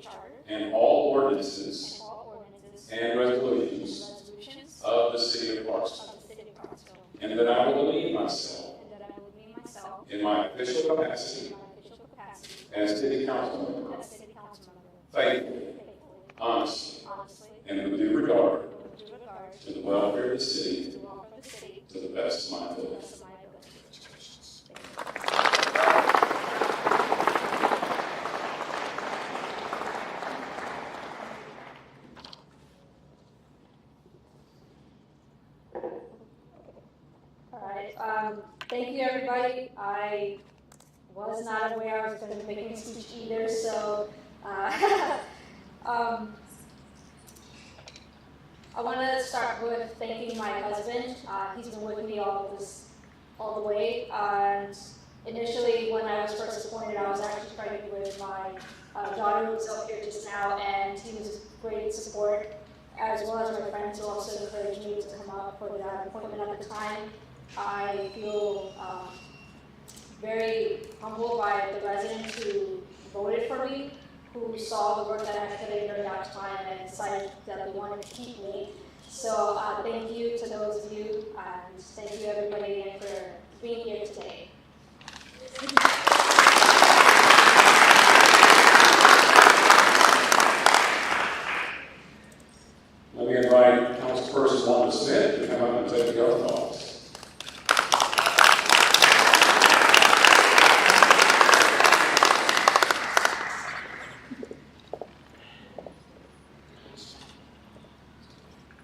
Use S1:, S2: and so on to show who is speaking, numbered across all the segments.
S1: Charter
S2: and all
S1: and
S2: ordinances
S1: all ordinances
S2: and resolutions
S1: resolutions
S2: of the city of Clarksville,
S1: of the city of Clarksville,
S2: and that I will demean myself
S1: and that I will demean myself
S2: in my official
S1: in
S2: capacity
S1: my official capacity
S2: as city council member
S1: as city council member
S2: faithfully,
S1: faithfully,
S2: honestly,
S1: honestly,
S2: and with due regard
S1: and with due regard
S2: to the welfare of the city
S1: to the welfare of the city
S2: to the best of my
S1: to the
S2: ability.
S1: best of my ability. Thank you. All right, um, thank you, everybody. I was not aware I was gonna be making a speech either, so, uh, um, I wanna start with thanking my husband. Uh, he's been with me all of this, all the way, and initially, when I was first appointed, I was actually pregnant with my, uh, daughter who was up here just now, and he was great support, as well as my friends who also encouraged me to come up for that appointment at the time. I feel um, very humbled by the residents who voted for me, who saw the work that I put in during that time and decided that they wanted to keep me. So uh, thank you to those of you, and thank you everybody again for being here today.
S2: Let me invite Councilperson Wanda Smith to come up and take the oath of office.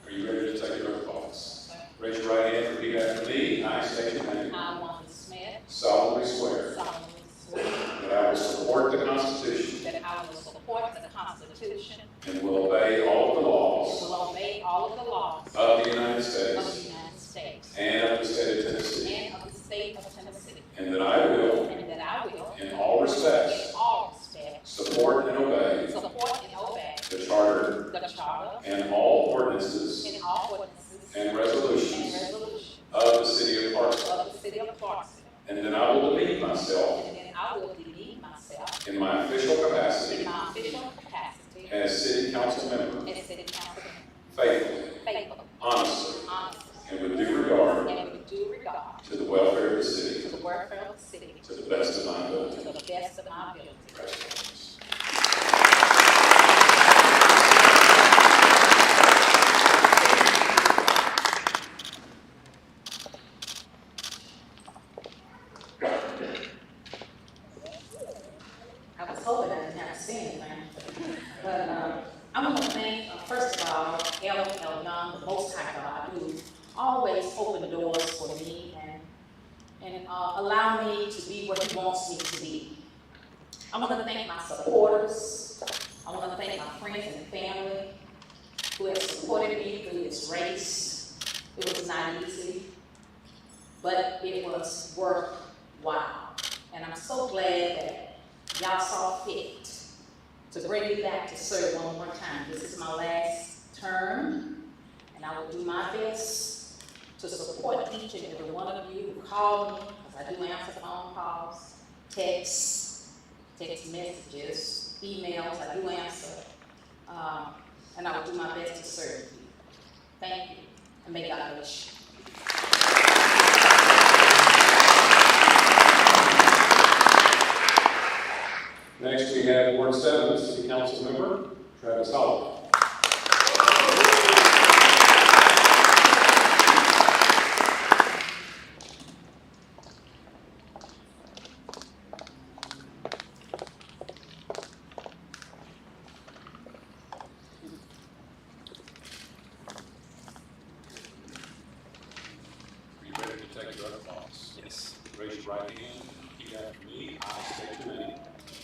S2: Are you ready to take the oath of office? Raise your right hand and repeat after me. I state your name.
S3: I, Wanda Smith,
S2: solemnly swear
S3: solemnly swear
S2: that I will support the Constitution
S3: that I will support the Constitution
S2: and will obey all the
S3: and
S2: laws
S3: will obey all of the laws of
S2: of the United
S3: the
S2: States
S3: United States
S2: and of the state of Tennessee.
S3: and of the state of Tennessee,
S2: And that I will,
S3: and that I will,
S2: in all respects,
S3: in all respects,
S2: support and obey
S3: support and obey
S2: the Charter
S3: the Charter
S2: and all ordinances
S3: and all ordinances
S2: and
S3: and
S2: resolutions
S3: resolutions
S2: of the City of Clarksville.
S3: of the city of Clarksville,
S2: And that I will demean myself
S3: and that I will demean myself
S2: in my official
S3: in
S2: capacity
S3: my official capacity
S2: as City Council Member
S3: as city council
S2: faithfully,
S3: member, faithfully,
S2: honestly,
S3: honestly,
S2: and with due regard
S3: and with due regard
S2: to the welfare of the city
S3: To the welfare of the city.
S2: to the best of
S3: To
S2: my ability.
S3: the best of my ability.
S2: Congratulations.
S4: I was hoping I didn't have to say anything. But um, I'm going to thank, uh, first of all, El El Young, the Most High God, who always opened doors for me and and uh, allow me to be what He wants me to be. I'm going to thank my supporters. I'm going to thank my friends and family who have supported me through this race. It was not easy, but it was worthwhile. And I'm so glad that y'all saw fit to bring me back to serve one more time. This is my last term, and I will do my best to support each and every one of you who call me, because I do answer phone calls, texts, text messages, emails, I do answer. Um, and I will do my best to serve you. Thank you, and may God bless you.
S2: Next, we have Ward Seven, City Council Member Travis Holloway. Are you ready to take your oath of office?
S5: Yes.
S2: Raise your right hand and repeat after me. I state your name.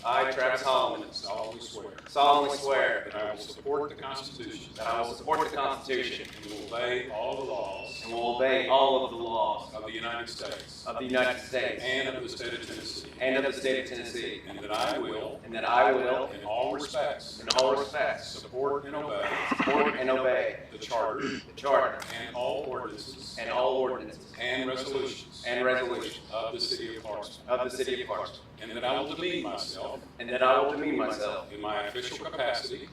S5: I, Travis Holloman,
S2: solemnly swear
S5: solemnly swear
S2: that I will support the Constitution
S5: that I will support the Constitution
S2: and will obey all the laws
S5: and will obey all of the laws
S2: of the United States
S5: of the United States
S2: and of the state of Tennessee,
S5: and of the state of Tennessee,
S2: and that I will,
S5: and that I will,
S2: in all respects,
S5: in all respects,
S2: support and obey
S5: support and obey
S2: the Charter
S5: the Charter
S2: and all ordinances
S5: and all ordinances
S2: and resolutions
S5: and resolutions
S2: of the city of Clarksville,
S5: of the city of Clarksville, and that I will demean myself
S2: and that I will demean myself
S5: in my official capacity